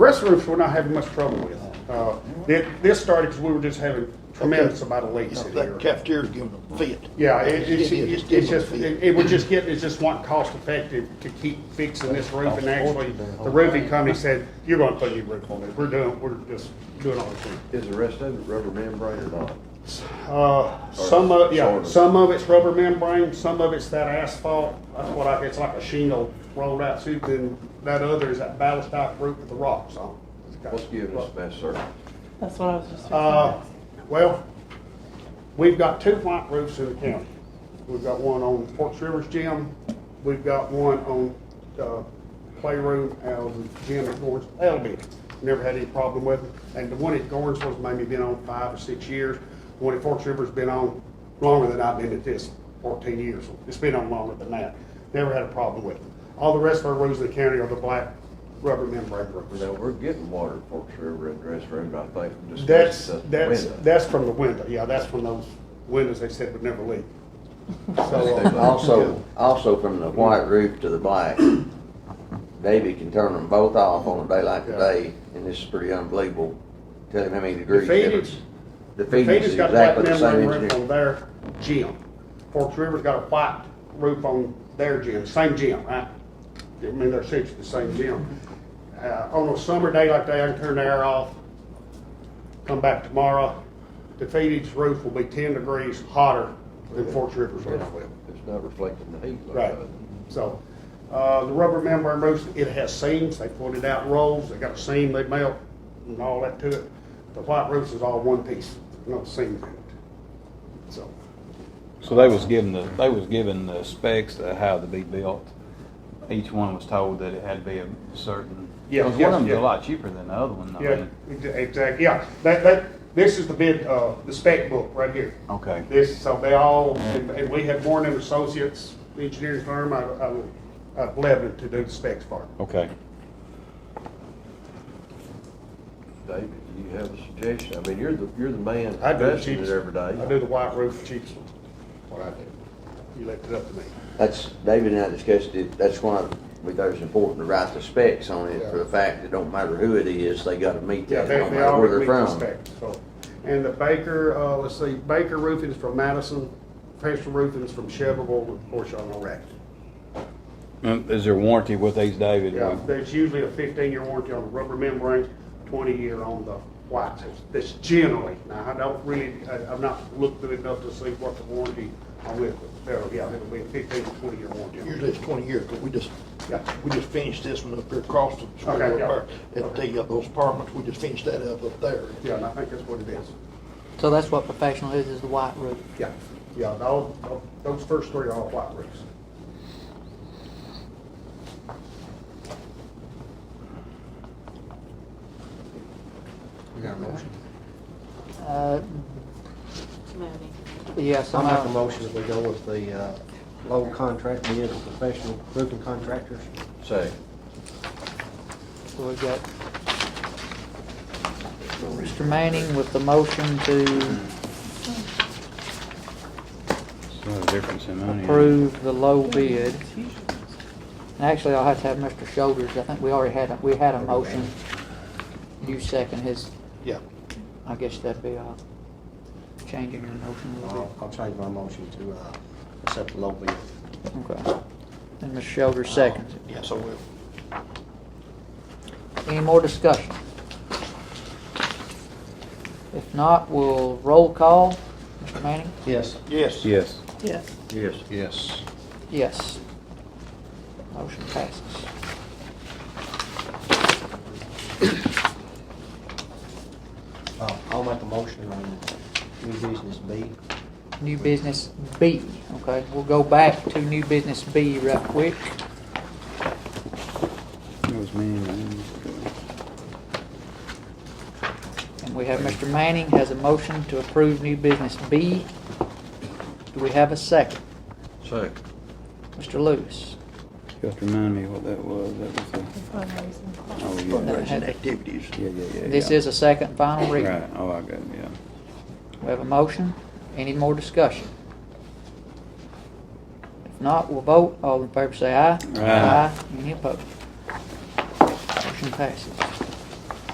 Rest roofs, we're not having much trouble with. Uh, thi- This started because we were just having tremendous amount of leaks in That here. cafeteria's giving them fit. Yeah, it- it's, It is, it's just, giving them it fit. it would just get, it's just not cost effective to keep fixing this roof. And actually, the roofing company said, you're going to put a new roof on it. We're doing, we're just doing all this. Is the rest of it rubber membrane or not? Uh, some of, yeah, Sort of. some of it's rubber membrane, some of it's that asphalt. That's what I, it's like a shingle rolled out suit. Then that other is that ballast type roof with the rocks on. it. What's giving us best service? That's what I was just. Uh, well, we've got two white roofs in the county. We've got one on Forks Rivers Gym, we've got one on, uh, Playroom out of the gym at Gorns Elby. Never had any problem with it. And the one at Gorns was maybe been on five or six years. The one at Forks River's been on longer than I've been at this, fourteen years. It's been on longer than that. Never had a problem with it. All the rest of our roofs in the county are the black rubber membrane roofs. Now, we're getting water at Forks River and Dress Road, I think. from just That's, the that's, window. that's from the window, yeah, that's from those windows they said would never leak. So, But uh, Also, also from the white roof to the black, Davy can turn them both off on a day like today, and this is pretty unbelievable. Tell him how many The degrees Phoenix- difference. The Phoenix Phoenix is got black exactly the membrane same roof on engineer. their gym. Forks River's got a white roof on their gym, same gym, right? I mean, they're essentially the same gym. Uh, on a summer day like that, I can turn the air off, come back tomorrow. The Phoenix roof will be ten degrees hotter than Forks River's roof will. It's not reflecting the heat like Right, that. so, uh, the rubber membrane roofs, it has seams, they pointed out rolls, they got a seam, they melt and all that to it. The white roofs is all one piece, no seams in it, so. So they was given the, they was given the specs of how to be built. Each one was told that it had to be a certain, Yeah, because yes, one of them's yeah. a lot cheaper than the other one, I Yeah, mean. exactly, yeah, that, that, this is the bid, uh, the spec book right here. Okay, This, so they all, and and we had Warren and Associates Engineering Firm out of- out of, out of Lebanon to do the specs part. okay. David, do you have a suggestion? I mean, you're the, you're the man I do the investing it cheapest, every I day. do the white roof the cheapest, one. what I do. You left it up to me. That's, David and I discussed it, that's why we thought it was important to write the specs on it, for the fact it don't matter who it is, they gotta meet Yeah, that, they, no they matter all where meet they're the from. specs, so. And the Baker, uh, let's see, Baker Roofing is from Madison, Professional Roofing is from Chevrolet, of course, y'all know Racket. Mm, Is there warranty with these, David? Yeah, there's usually a fifteen-year warranty on the rubber membrane, twenty-year on the whites, that's generally, now, I don't really, I, I've not looked at it enough to see what the warranty on it, but, uh, yeah, it'll be a fifteen to twenty-year warranty. on it. Usually it's twenty years, but we just, Yeah. we just finished this one up here across the street Okay, yeah. over there. At the, uh, those apartments, we just finished that up up there. Yeah, and I think that's what it is. So that's what professional is, is the white roof. Yeah, yeah, those, those first three are all white roofs. You got a motion? Uh, Yes, I'll I'm make a out. motion that we go with the uh, low contract bid of professional roofing contractors. Say, So we got Mr. Manning with the motion to It's not a difference in money. approve the low bid. And actually, I'll have to have Mr. Shoulders, I think we already had, a we had a motion. You second his, Yeah. I guess that'd be, uh, changing your motion a little Uh, I'll I'll change my motion to uh, accept the low bid. bit. Okay. And Mr. Shoulders seconds it. Yeah, so uh, we'll. Any more discussion? If not, we'll roll call. Mr. Manning? Yes. Yes. Yes. Yes. yes. Yes. Yes. Motion passes. Uh, I'll make a motion on new business B. New business B, okay, we'll go back to new business B real quick. It was me and him. And we have Mr. Manning has a motion to approve new business B. Do we have a second? Say, Mr. Lewis? You have to remind me what that was. That was the, oh, yeah. Fundraising activities. Yeah, yeah, yeah. This yeah. is a second final reading. Right, oh, I got it, yeah. We have a motion. Any more discussion? If not, we'll vote. All in favor say aye. Aye. Any opposed? Motion passes.